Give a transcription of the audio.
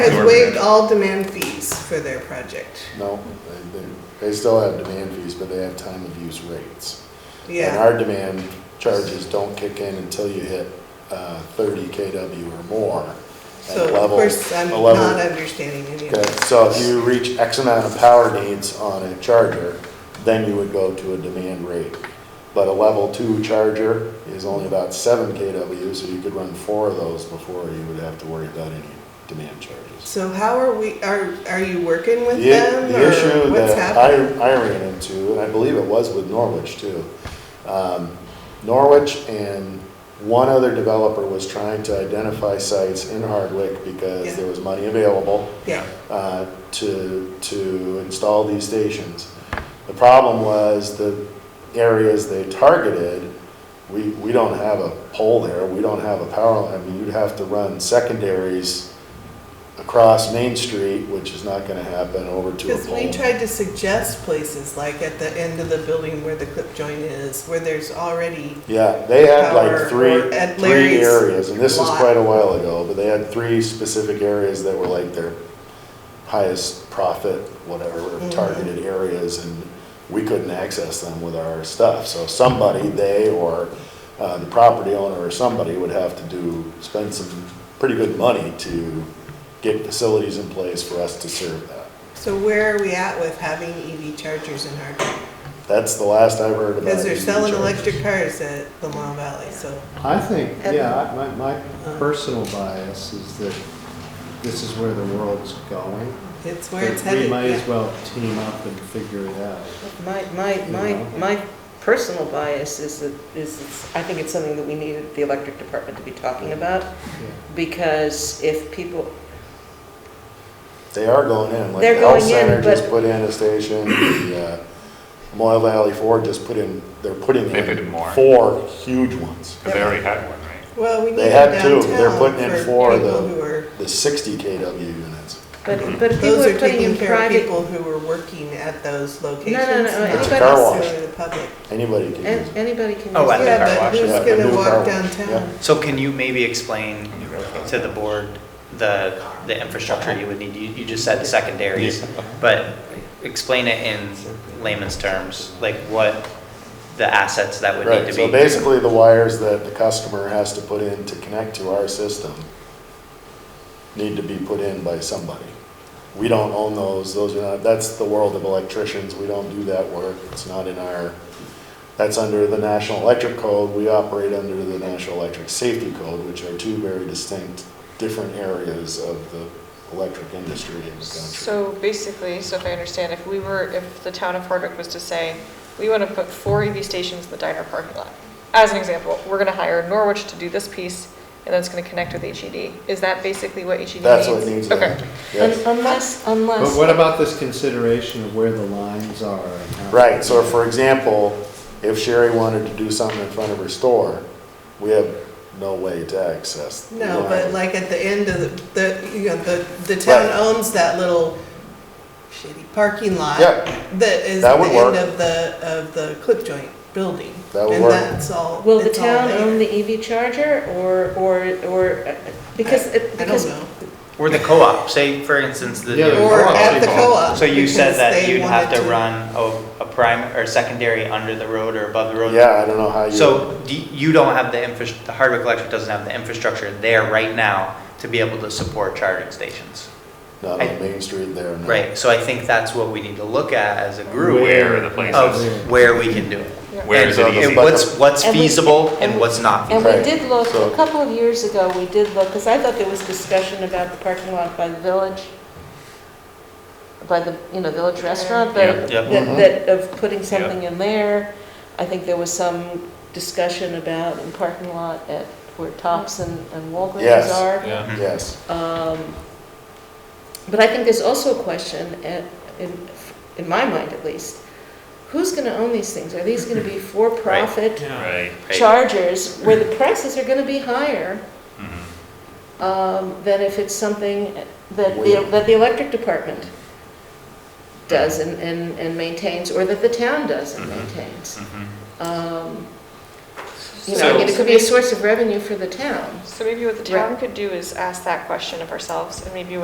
has Nor- waived all demand fees for their project. No, they, they, they still have demand fees, but they have time of use rates. And Yeah, our demand charges don't kick in until you hit, uh, thirty KW or more. at so of level- course, I'm a level- not understanding any of Okay, that. so if you reach X amount of power needs on a charger, then you would go to a demand rate. But a level two charger is only about seven KW, so you could run four of those before you would have to worry about any demand charges. So how are we, are, are you working with The- them The or issue what's that I, happening? I ran into, and I believe it was with Norwich too. um, Norwich and one other developer was trying to identify sites in Hardwick because Yeah. there was money available Yeah, uh, to, to install these stations. The problem was the areas they targeted, we, we don't have a pole there, we don't have a power line. I mean, you'd have to run secondaries across Main Street, which is not gonna happen, over to a because we pole. tried to suggest places like at the end of the building where the clip joint is, where there's already, Yeah, they had Power like three, or at three Larry's areas, and this is lot. quite a while ago, but they had three specific areas that were like their highest profit, whatever, Mhm. targeted areas, and we couldn't access them with our stuff. So somebody, they or uh, the property owner or somebody would have to do, spend some pretty good money to get facilities in place for us to serve that. so where are we at with having EV chargers in Hardwick? That's the last I've heard about. Because they're EV selling E chargers. electric cars at Lamar Valley, so. I think, yeah, my, my personal bias is that this is where the world's going. It's where it's That We headed. might as yeah. well team up and figure it out. My, my, my, my personal bias is that, is, it's- I think it's something that we needed the electric department to be talking about, Yeah. because if people, They are going in, like They're the health going in, center just but- put in a station, the uh, Moyle Valley Ford just put in, they're putting They put in in more. four huge ones. Because they already had one, right? Well, we need They it had two. downtown They're putting in four for of people them. who are, The sixty KW units. but, Mm-hmm. but if people those are are putting taking in care of private. people who were working at those locations. no, not It's a car wash. necessarily the public. Anybody can use an- it. Anybody can use. Oh, at it. the Yeah, car but wash. who's Yeah, the gonna new walk car wash, downtown? So can you maybe explain to the board the, the infrastructure you would need? You, you just said secondaries, but explain it in layman's terms, like what the assets that would need Right, to so be. basically the wires that the customer has to put in to connect to our system need to be put in by somebody. We don't own those, those are not, that's the world of electricians, we don't do that work, it's not in our, that's under the National Electric Code, we operate under the National Electric Safety Code, which are two very distinct, different areas of the electric industry in the country. So basically, so if I understand, if we were, if the town of Hardwick was to say, we want to put four EV stations in the diner parking lot, as an example, we're going to hire Norwich to do this piece, and then it's going to connect with HED. Is that basically what HED needs? That's what needs to Okay. happen, yes. Un- Unless, But unless. what about this consideration of where the lines are? and how- Right, so for example, if Sherry wanted to do something in front of her store, we have no way to access. the No, but line. like at the end of the, the, you know, the, the town Right. owns that little shitty parking lot. Yeah. That is That at would the end work. of the, of the clip joint building. That would work. And that's all. Will the it's all town there. own the EV charger or, or, or, uh, because, it- I don't because know. Or the co-op, say for instance, the. Yeah, the Or co-op. at the people. co-op. So you said because that they you'd have wanted to run a, a prime or secondary under the road or above the road? Yeah, I don't know how you. So do you you don't have the infra, the Hardwick Electric doesn't have the infrastructure there right now to be able to support charging stations, Not on Main Street there, no. right? So I think that's what we need to look at as a group Where are the places? of where we can do it. Yeah. Where And- is it easy? And what's, what's And we- feasible and and we- what's not feasible. and we Right. did look, So- a couple of years ago, we did look, because I thought there was discussion about the parking lot by the village, by the, you know, village restaurant, but Yeah, yeah. that, Mhm. that of putting something in there. I think there was some discussion about in parking lot at where Tops and and Walgreens Yes. are. Mhm. Mm-hmm. Yes, Um, But I think there's also a question, at- in, in my mind at least, who's gonna own these things? Are these gonna be for-profit Right. chargers where the prices are gonna be higher Mhm. um, than if it's something that the, Where? that the electric department does and, and and maintains, or that the town does and Mhm. maintains? Mhm. Um, You know, I mean, it could be a source of revenue for the town. So maybe what the town could do is ask that question of ourselves, and maybe